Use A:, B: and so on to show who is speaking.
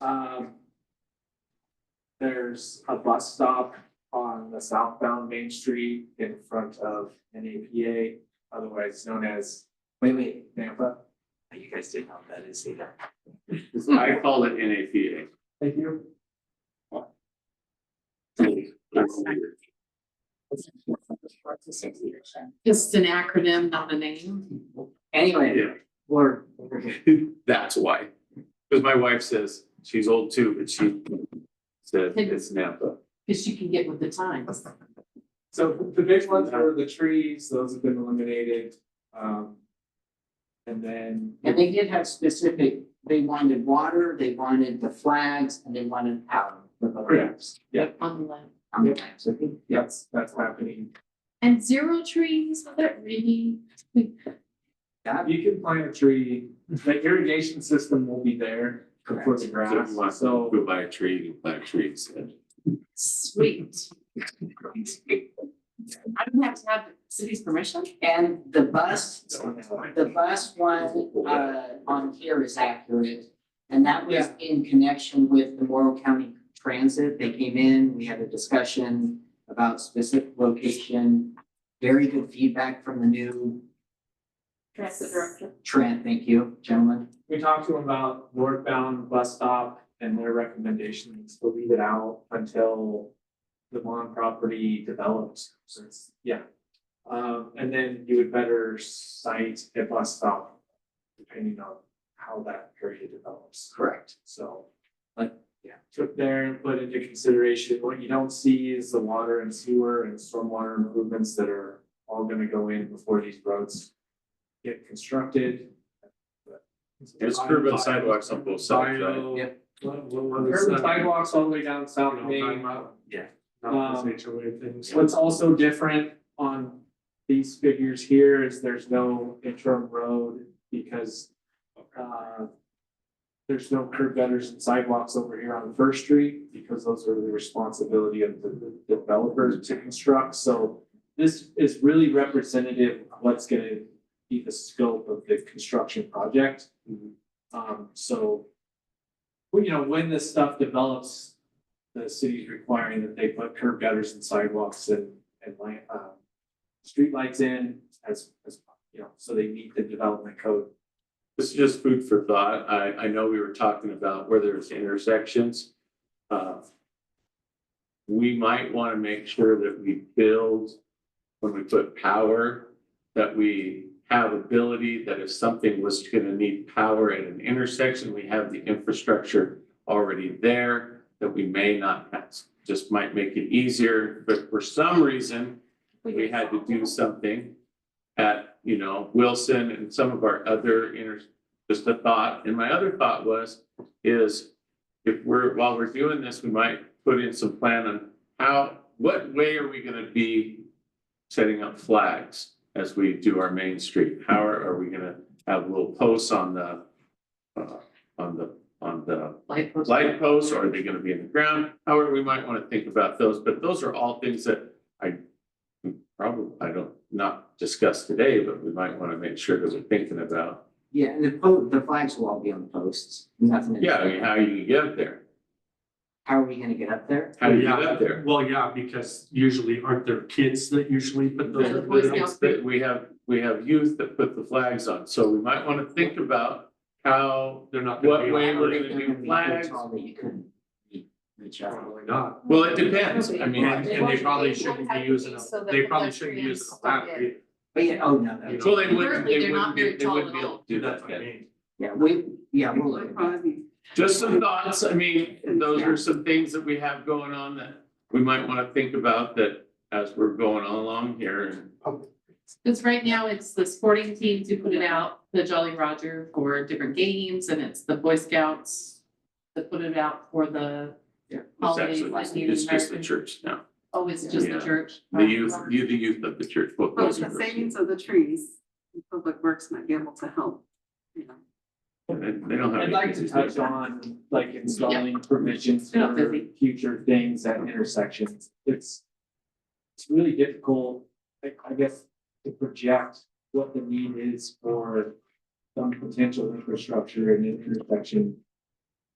A: Um. There's a bus stop on the southbound Main Street in front of NAPA, otherwise known as, wait, wait, Nampa. You guys didn't know what that is either.
B: I call it NAPA.
A: Thank you.
C: It's an acronym, not a name.
A: Anyway,
B: Yeah,
A: we're,
B: that's why. Because my wife says she's old too, but she said it's Napa.
C: Cause you can get with the times.
A: so the big ones were the trees, those have been eliminated, um. And then.
D: And they did have specific, they wanted water, they wanted the flags, and they wanted power for the lamps.
C: On the left.
D: On the lamps, I think, yeah.
A: That's, that's happening.
C: And zero trees, was that really?
A: You can plant a tree, the irrigation system will be there for the
B: So if you want
A: grass,
B: to
A: so.
B: go buy a tree, you can plant a tree instead.
C: Sweet. I don't have to have the city's permission?
D: And the bus, the bus one, uh, on here is accurate. And that was in connection with the Morrow County Transit. They came in, we had a discussion about specific location. Very good feedback from the new
C: Transit director.
D: Trent, thank you, gentlemen.
A: We talked to them about northbound bus stop and their recommendations to leave it out until the Mon property develops, so it's, yeah. Um, and then you would better cite a bus stop depending on how that area develops.
D: Correct.
A: So, like, yeah, took there and put into consideration, what you don't see is the water and sewer and stormwater improvements that are all gonna go in before these roads get constructed.
B: There's curb and sidewalks on both sides, right?
A: Bio-
D: Yep.
A: What- what- what is Curb and
E: that?
A: sidewalks all the way down South
E: No,
A: Main.
B: Yeah.
A: not those
E: HOA things.
A: Um, What's also different on these figures here is there's no interim road because uh, there's no curb gutters and sidewalks over here on First Street because those are the responsibility of the the developers to construct. So this is really representative of what's gonna be the scope of the construction project.
B: Mhm.
A: Um, so, well, you know, when this stuff develops, the city's requiring that they put curb gutters and sidewalks and, and light, uh, streetlights in as, as, you know, so they meet the development code.
B: This is just food for thought. I, I know we were talking about where there's intersections. Uh, We might want to make sure that we build, when we put power, that we have ability, that if something was going to need power at an intersection, we have the infrastructure already there that we may not have. Just might make it easier, but for some reason, we had to do something at, you know, Wilson and some of our other inter, just a thought. And my other thought was, is if we're, while we're doing this, we might put in some plan on how, what way are we gonna be setting up flags as we do our main street? How are, are we gonna have little posts on the, uh, on the, on the
C: Light post.
B: light posts, or are they gonna be in the ground? However, we might wanna think about those, but those are all things that I probably, I don't, not discuss today, but we might wanna make sure that we're thinking about,
D: Yeah, and the po, the flags will all be on the posts, nothing. in-
B: yeah, I mean, how you get there,
D: How are we gonna get up there?
B: how do you get up there?
E: Well, yeah, because usually aren't there kids that usually put
C: Yeah,
E: those?
C: the Boy
B: It's that We have, we have youth that put the flags on, so we might wanna think about how,
E: They're not.
B: What
E: gonna be
B: way
E: allowed.
B: we're gonna do
D: They're be too
B: flags.
D: tall that you couldn't re- reach out.
E: Probably not.
B: well, it depends, I mean.
E: And, and they probably shouldn't be using, a- they probably shouldn't be using a ladder. either.
D: But yeah, oh, no, no,
E: Yeah.
B: Well, they wouldn't,
C: Currently,
B: they
C: they're
B: wouldn't
C: not
B: be,
C: very
B: they
C: tall
B: wouldn't be
C: at
B: able
C: all.
B: to do
E: That's
B: that.
E: what I mean.
D: yeah, we, yeah, we'll look at that.
B: Just some thoughts, I mean, those are some things that we have going on that we might wanna think about that as we're going along here and.
C: Cause right now it's the sporting teams who put it out, the Jolly Roger for different games and it's the Boy Scouts that put it out for the,
B: It's
C: Holidays
B: actually,
C: like
B: just-
C: Native
B: it's just the
C: American.
B: church now,
C: oh, it's just the
B: Yeah.
C: church.
B: the youth, you, the youth of the church, what
F: But
C: Oh,
B: goes
F: the
B: in
F: savings of the trees, Public Works might be able to help, you know.
B: and They don't have.
A: I'd like to
B: anything
A: touch
B: do.
A: on like installing provisions
C: Yeah,
A: for
C: busy.
A: future things at intersections. It's it's really difficult, like, I guess, to project what the need is for some potential infrastructure and intersection